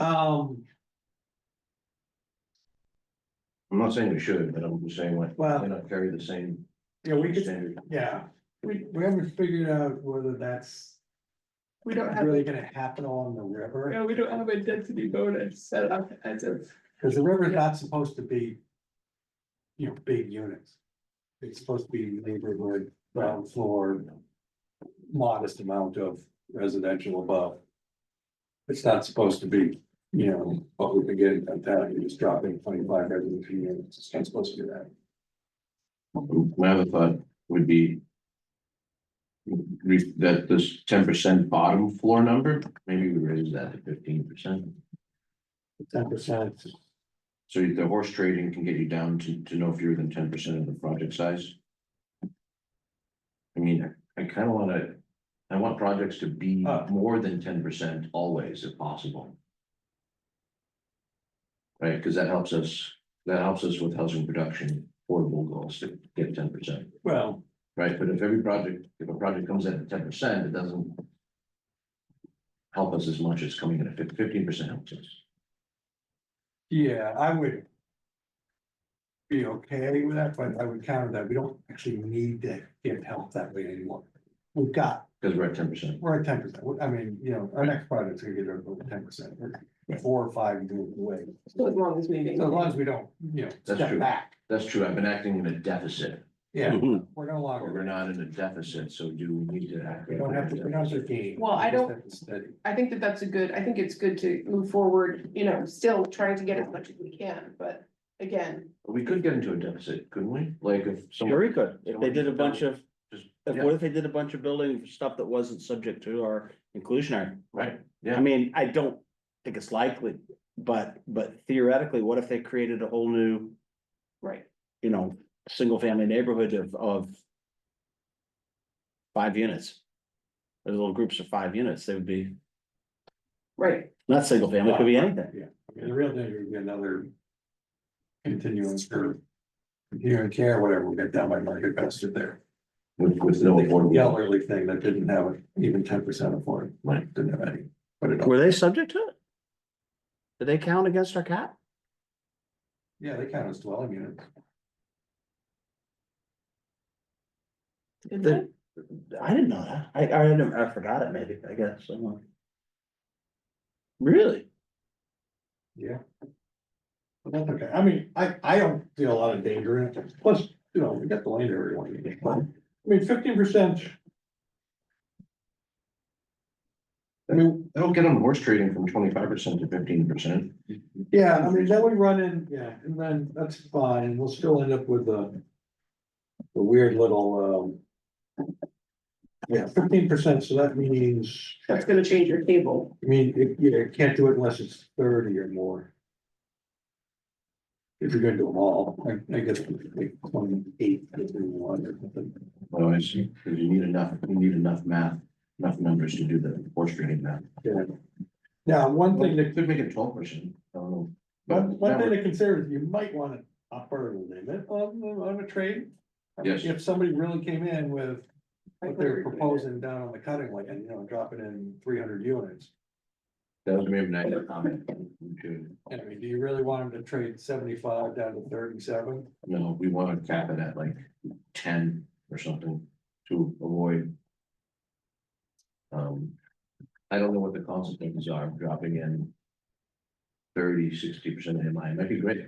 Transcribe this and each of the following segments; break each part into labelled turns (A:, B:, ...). A: Um,
B: I'm not saying we should, but I'm just saying like,
A: Well-
B: why not carry the same
A: yeah, we could,
B: standard?
A: yeah, we, we haven't figured out whether that's
C: We don't have,
A: really gonna happen on the river.
C: no, we don't have a density bonus set up as of,
A: Cause the river's not supposed to be. You know, big units. It's supposed to be neighborhood, ground floor. Modest amount of residential above. It's not supposed to be, you know, what we begin at that, you're just dropping twenty-five residential units, it's not supposed to do that.
B: My other thought would be. re- That this ten percent bottom floor number, maybe we raise that to fifteen percent.
A: Ten percent.
B: So the horse trading can get you down to, to no fewer than ten percent of the project size. I mean, I kinda wanna, I want projects to be
A: Uh.
B: more than ten percent always if possible. Right, cause that helps us, that helps us with housing production, affordable goals to get ten percent,
A: Well,
B: right? But if every project, if a project comes in at ten percent, it doesn't. Help us as much as coming in at fifteen percent helps us.
A: yeah, I would. Be okay with that, but I would counter that, we don't actually need to give help that way anymore. We've got
B: Cause we're at ten percent,
A: We're at ten percent, I mean, you know, our next project's gonna get rid of ten percent, four or five years away,
C: so as long as we make.
A: so as long as we don't, you know,
B: That's
A: step
B: true.
A: back.
B: that's true, I've been acting in a deficit.
A: Yeah,
D: Mm-hmm.
A: we're no
B: Or We're
A: longer,
B: not in a deficit, so do we need to act?
A: we don't have to pronounce our game.
C: Well, I
A: We just
C: don't-
A: have to Steady,
C: I think that that's a good, I think it's good to move forward, you know, still trying to get as much as we can, but again,
B: We could get into a deficit, couldn't we? Like if
D: Sure,
B: someone
D: you could, if they did a bunch of,
B: just,
D: if,
B: yeah,
D: what if they did a bunch of building stuff that wasn't subject to our inclusionary?
B: right,
D: I
B: yeah,
D: mean, I don't think it's likely, but, but theoretically, what if they created a whole new,
C: right,
D: you know, single family neighborhood of, of five units? Or Little groups of five units, they would be,
C: right,
D: not single family, it could be anything.
A: yeah, I mean, the real danger would be another. Continuance for. Continuing care, whatever, we'll get down by market bastard there,
B: with, with no
A: the
B: affordable,
A: elderly thing that didn't have even ten percent of it,
B: Right.
A: didn't have any. But it,
D: Were they subject to it? Did they count against our cap?
A: yeah, they count as dwelling units,
C: Did
D: They- I didn't know that. I, I didn't, I forgot it maybe, I guess, someone. Really?
A: Yeah. But that's okay, I mean, I, I don't see a lot of danger in it, plus, you know, we got the land area one, I mean, fifteen percent. I mean,
B: that'll get them horse trading from twenty-five percent to fifteen percent.
A: yeah, I mean, then we run in, yeah, and then that's fine, we'll still end up with the. The weird little, um. Yeah, fifteen percent, so that means, I
C: that's gonna change your table.
A: mean, it, you know, you can't do it unless it's thirty or more. If you're gonna do them all, I, I guess like twenty-eight, if you want or something.
B: Well, I see, 'cause you need enough, you need enough math, enough numbers to do the horse trading math.
A: Now, one thing that,
B: They could make it twelve percent, I don't know. But
A: one, one
B: that
A: thing
B: would-
A: to consider is you might want to upper limit on, the- on a trade. I mean,
B: Yes.
A: If somebody really came in with what they're proposing down on the cutting line, and you know, dropping in three hundred units.
B: that was maybe a negative comment. We should-
A: And I mean, do you really want them to trade seventy-five down to thirty-seven?
B: No, we wanna cap it at like ten or something to avoid. Um, I don't know what the consequences are of dropping in. 30, 60 percent of MI, it might be great.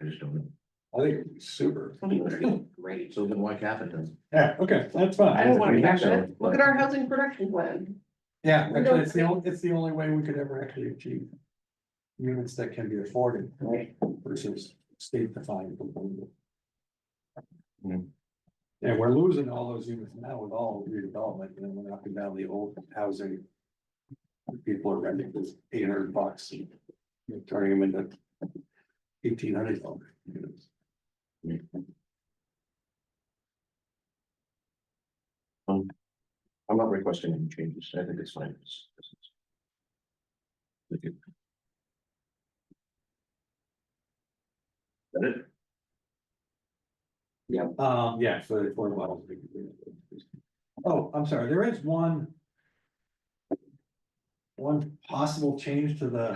B: I just don't know.
A: I think it'd be super.
C: I mean, it's Great,
B: So then why cap it then?
A: Yeah, okay, that's
C: I
A: fine.
C: don't wanna
B: We
C: catch
B: have
C: it,
B: to,
C: look
B: but-
C: at our housing production plan,
A: Yeah,
C: We don't
A: actually, it's the only, it's the only way we could ever actually achieve. Units that can be afforded
C: right,
A: versus state defined.
B: Yeah.
A: And we're losing all those units now with all redevelopment, and then we're up and down the old housing. People are renting this eight hundred bucks, and you're turning them into eighteen hundred dollars.
B: I'm not requesting any changes, I think it's fine. It's- it's- it's- Thank you. Is That it?
A: Um, yeah, so the affordable housing. Oh, I'm sorry, there is one. One possible change to the